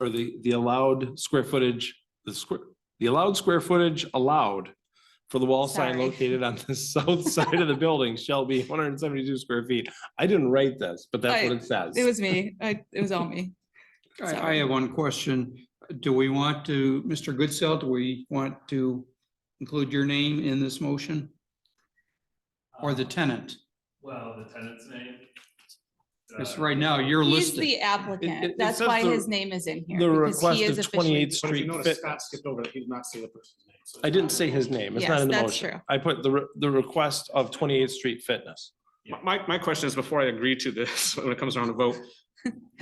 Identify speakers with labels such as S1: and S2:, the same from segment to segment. S1: or the, the allowed square footage, the square, the allowed square footage allowed for the wall sign
S2: Sorry.
S1: located on the south side of the building shall be one hundred and seventy-two square feet. I didn't write this, but that's what
S2: I-
S1: it says.
S2: Oh, It was me. I, it was all me. So-
S3: I, I have one question. Do we want to, Mr. Goodsell, do we want to include your name in this motion or the tenant?
S4: Um, Well, the tenant's name.
S3: Because
S4: Uh,
S3: right now you're
S2: He's
S3: listed.
S2: the
S1: it- it
S2: applicant. That's
S1: says
S2: why
S1: the-
S2: his name is in here.
S1: The
S2: because he
S1: request
S2: is
S1: of
S2: officially-
S1: twenty-eighth
S4: But if you
S1: street
S4: notice,
S1: Fit.
S4: Scott skipped over that, he did not say the person's name. so
S1: I
S4: it's
S1: didn't
S4: not-
S1: say his name. It's not
S2: Yes,
S1: in the
S2: that's
S1: motion.
S2: true.
S1: I put the, re- the request of twenty-eighth street fitness.
S4: My- My, my question is, before I agree to this, when it comes around to vote,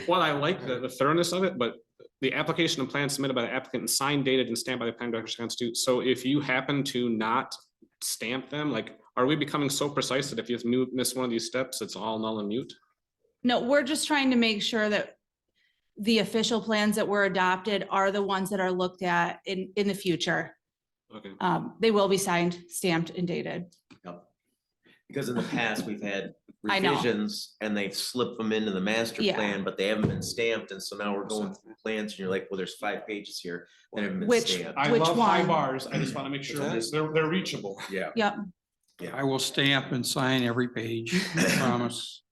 S4: while I like the the thoroughness of it, but the application and plan submitted by the applicant and signed, dated, and stamped by the plan director shall constitute, so if you happen to not stamp them, like, are we becoming so precise that if you mu- miss one of these steps, it's all null and mute?
S2: No, we're just trying to make sure that the official plans that were adopted are the ones that are looked at in, in the future.
S4: Okay.
S2: Um, they will be signed, stamped and dated.
S5: Because in the past, we've had
S2: I know.
S5: revisions and they've slipped them into the master
S2: Yeah.
S5: plan, but they haven't been stamped. And so now we're going through plans and you're like, well, there's five pages here that haven't been
S2: Which-
S5: stamped.
S4: I
S2: Which
S4: love high
S2: one?
S4: bars, I just want to make sure
S5: Okay.
S4: they're, they're reachable.
S5: Yeah.
S2: Yep.
S3: I will stamp and sign every page, I promise.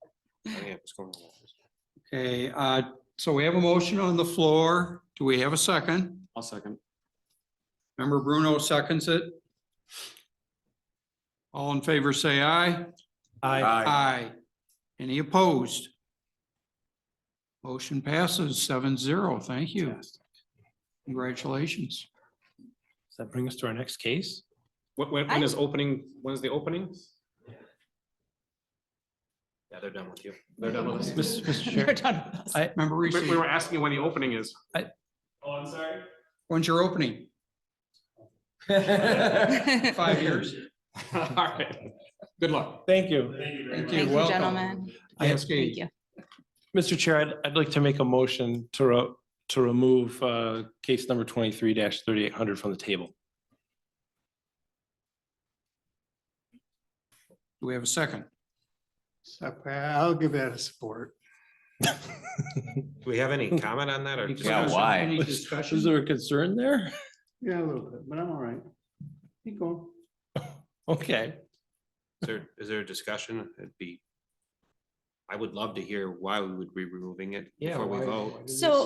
S3: Okay, uh, so we have a motion on the floor. Do we have a second?
S4: I'll second.
S3: Member Bruno seconds it. All in favor, say aye.
S1: I,
S5: Aye.
S3: Aye. Any opposed? Motion passes seven zero. Thank you. Congratulations.
S1: does that bring us to our next case?
S4: When, when when is opening, when's the opening? Yeah, they're done with you. They're done with us.
S1: Mr. Mr.
S2: We're
S1: Chair,
S2: done with this.
S1: I-
S3: Member Reese,
S4: We we were asking you when the opening is.
S1: I-
S4: Oh, I'm sorry.
S3: when's your opening? Five years.
S4: All right. Good luck.
S1: thank you.
S4: Thank you
S3: Thank
S2: Thank you,
S3: welcome.
S2: gentlemen.
S1: I-
S2: Thank
S3: Cascade.
S2: you.
S1: Mr. Chair, I'd, I'd like to make a motion to, ro- to remove, uh, case number twenty-three thirty-eight hundred from the table.
S3: Do we have a second?
S6: Okay, Uh, I'll give that a support.
S7: Do we have any comment on that or?
S3: Any
S7: just-
S5: Yeah,
S3: discussion?
S5: why?
S3: Any
S1: Was
S3: discussion?
S1: was there a concern there?
S6: Yeah, a little bit, but I'm all right. Keep going.
S1: Okay.
S7: Is there, is there a discussion? It'd be. I would love to hear why we would be removing it
S1: Yeah,
S7: before we
S1: why-
S7: vote.
S2: So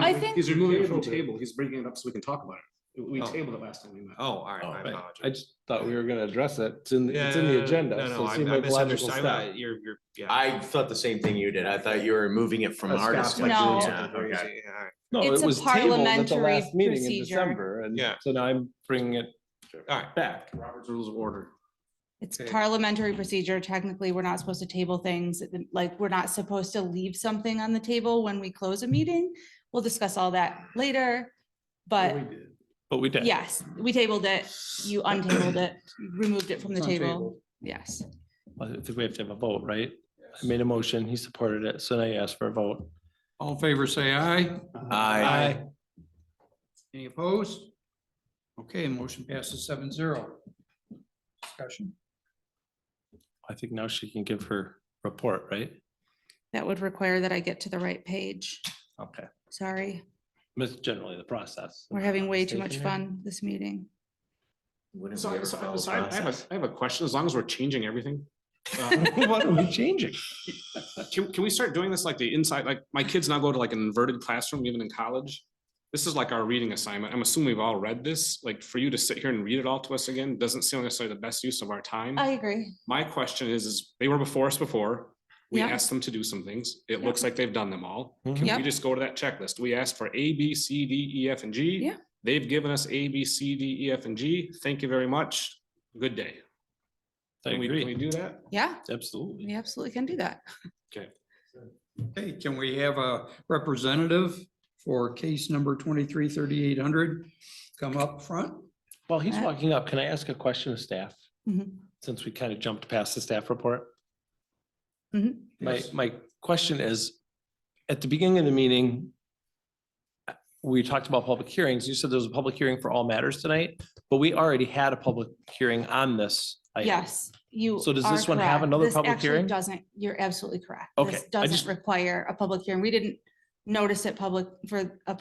S2: I think-
S4: He's removing it from
S6: Table.
S4: table. He's bringing it up so we can talk about it. We
S7: Oh.
S4: tabled it last time we met.
S7: Oh, all right, I
S1: Right.
S7: apologize.
S1: I just thought we were gonna address it. It's in, it's in the
S7: Yeah,
S1: agenda,
S7: no,
S1: so
S7: no,
S1: it
S7: I-
S1: seemed
S7: I
S1: like a logical
S7: misunderstood.
S1: step.
S7: You're, you're, yeah.
S5: I thought the same thing you did. I thought you were removing it from
S4: That's
S5: our
S4: Scott's
S5: discussion.
S2: No.
S7: Uh-huh. Yeah,
S5: Okay.
S7: okay, all right.
S1: No,
S2: It's
S1: it
S2: a
S1: was tabled at the
S2: parliamentary
S1: last meeting in
S2: procedure.
S1: December, and
S7: Yeah.
S1: so now I'm bringing it
S7: All right.
S1: back.
S4: Robert's rules of order.
S2: It's
S3: Okay.
S2: parliamentary procedure. Technically, we're not supposed to table things, like, we're not supposed to leave something on the table when we close a
S3: Mm-hmm.
S2: meeting. We'll discuss all that later, but
S1: But we did.
S2: yes, we tabled it, you untabled it, you removed it from the
S3: It's
S2: table,
S3: untabled.
S2: yes.
S1: I think we have to have a vote, right? I made a motion, he supported it, so now you ask for a vote.
S3: All in favor, say aye.
S5: Aye.
S3: Any opposed? Okay, motion passes seven zero. Discussion.
S1: I think now she can give her report, right?
S2: That would require that I get to the right page,
S1: Okay.
S2: sorry,
S1: That's generally the process.
S2: we're having way too much fun this meeting.
S5: Wouldn't we
S4: So,
S5: ever
S4: so,
S5: follow
S4: so I I have
S5: process?
S4: a, I have a question. As long as we're changing everything. uh,
S1: What are we changing?
S4: Can, can we start doing this like the inside, like my kids now go to like an inverted classroom even in college? This is like our reading assignment. I'm assuming we've all read this, like for you to sit here and read it all to us again, doesn't seem necessarily the best use of our
S3: Mm-hmm.
S4: time.
S2: I agree,
S4: My question is, is they were before us before. We
S2: Yeah.
S4: asked them to do some things. It
S2: Yeah.
S4: looks like they've done them all.
S3: Mm-hmm.
S1: Mhm.
S4: We
S2: Yep.
S4: just go to that checklist. We asked for A, B, C, D, E, F, and G.
S2: Yeah.
S4: They've given us A, B, C, D, E, F, and G. Thank you very much. Good day.
S1: I
S4: Can we, can we
S1: agree,
S4: do that?
S2: yeah,
S1: absolutely.
S2: we absolutely can do that.
S3: Okay, can we have a representative for case number twenty-three thirty-eight hundred come up front?
S1: While he's
S2: Uh,
S1: walking up, can I ask a question of staff?
S2: Mhm.
S1: Since we kind of jumped past the staff report?
S2: Mhm.
S1: My,
S3: Yes.
S1: my question is, at the beginning of the meeting, we talked about public hearings. You said there was a public hearing for all matters tonight, but we already had a public hearing on this. item.
S2: Yes, you.
S1: So does
S2: are
S1: this one have
S2: correct.
S1: another
S2: This
S1: public
S2: actually
S1: hearing?
S2: Doesn't, you're absolutely correct.
S1: Okay,
S2: This
S1: I just-
S2: Doesn't require a public hearing. We didn't notice it public for a